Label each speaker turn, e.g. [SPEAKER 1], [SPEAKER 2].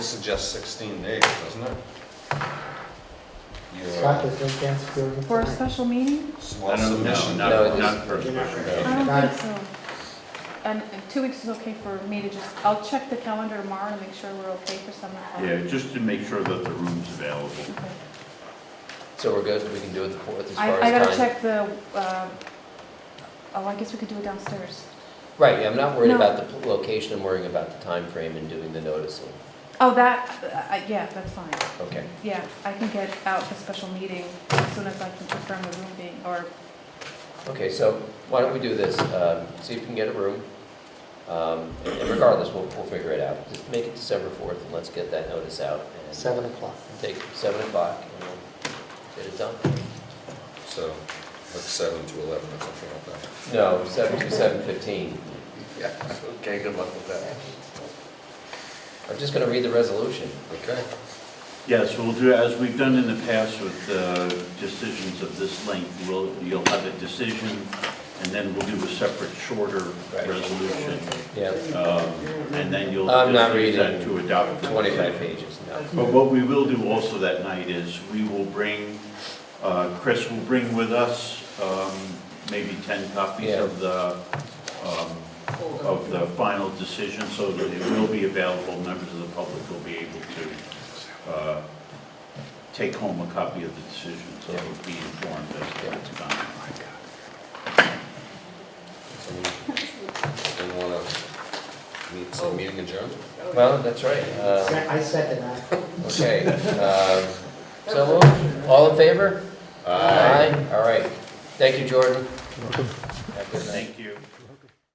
[SPEAKER 1] suggests 16 days, doesn't it? Your,
[SPEAKER 2] Scott,
[SPEAKER 1] uh,
[SPEAKER 2] there's no chance of doing it
[SPEAKER 3] For a
[SPEAKER 2] tonight?
[SPEAKER 3] special meeting?
[SPEAKER 1] well, submission.
[SPEAKER 4] No,
[SPEAKER 5] No,
[SPEAKER 4] no,
[SPEAKER 5] it
[SPEAKER 4] not, not for a
[SPEAKER 2] You're not
[SPEAKER 4] special
[SPEAKER 2] gonna-
[SPEAKER 1] Yeah.
[SPEAKER 3] I
[SPEAKER 2] Got
[SPEAKER 3] don't
[SPEAKER 2] it.
[SPEAKER 3] think so. And and two weeks is okay for me to just, I'll check the calendar tomorrow to make sure we're okay for summer. hall.
[SPEAKER 4] Yeah, just to make sure that the room's available.
[SPEAKER 3] Okay.
[SPEAKER 5] So we're good, we can do it the fourth as
[SPEAKER 3] I,
[SPEAKER 5] far
[SPEAKER 3] I gotta
[SPEAKER 5] as time?
[SPEAKER 3] check the, uh, oh, I guess we could do it downstairs.
[SPEAKER 5] Right, yeah, I'm not worried
[SPEAKER 3] No.
[SPEAKER 5] about the pl- location, I'm worrying about the time frame and doing the noticing.
[SPEAKER 3] Oh, that, uh, I- yeah, that's fine.
[SPEAKER 5] Okay,
[SPEAKER 3] Yeah, I can get out the special meeting as soon as I can confirm the room being, or,
[SPEAKER 5] okay, so why don't we do this, um, see if we can get a room. Um, And and regardless, we'll, we'll figure it out. Just make it December fourth and let's get that notice out. and
[SPEAKER 2] Seven o'clock.
[SPEAKER 5] Take seven o'clock and we'll get it done.
[SPEAKER 1] So, like 7 to 11 or something like that.
[SPEAKER 5] No, seven to seven fifteen.
[SPEAKER 1] Yeah, okay, good luck with that.
[SPEAKER 5] I'm just gonna read the resolution.
[SPEAKER 1] Okay.
[SPEAKER 4] Yes, we'll do, as we've done in the past with uh, decisions of this length, we'll, you'll have a decision, and then we'll do a separate shorter
[SPEAKER 5] Right.
[SPEAKER 4] resolution.
[SPEAKER 5] Yeah,
[SPEAKER 4] um, And then you'll.
[SPEAKER 5] I'm not
[SPEAKER 4] just use that
[SPEAKER 5] reading
[SPEAKER 4] To adopt.
[SPEAKER 5] twenty-five pages, no.
[SPEAKER 4] But what we will do also that night is, we will bring, uh, Chris will bring with us um, maybe 10 copies
[SPEAKER 5] Yeah.
[SPEAKER 4] of the, um, of the final decision, so that it will be available, members of the public will be able to uh, take home a copy of the decision, so they'll be informed as to what's gone.
[SPEAKER 1] Didn't want to meet, so meeting adjourned?
[SPEAKER 5] Well, that's right. um,
[SPEAKER 2] Se- I second that.
[SPEAKER 5] Okay, um, so, we'll- all
[SPEAKER 1] Uh,
[SPEAKER 5] in favor? All right, thank you, Jordan. Have a good night.
[SPEAKER 4] Thank you.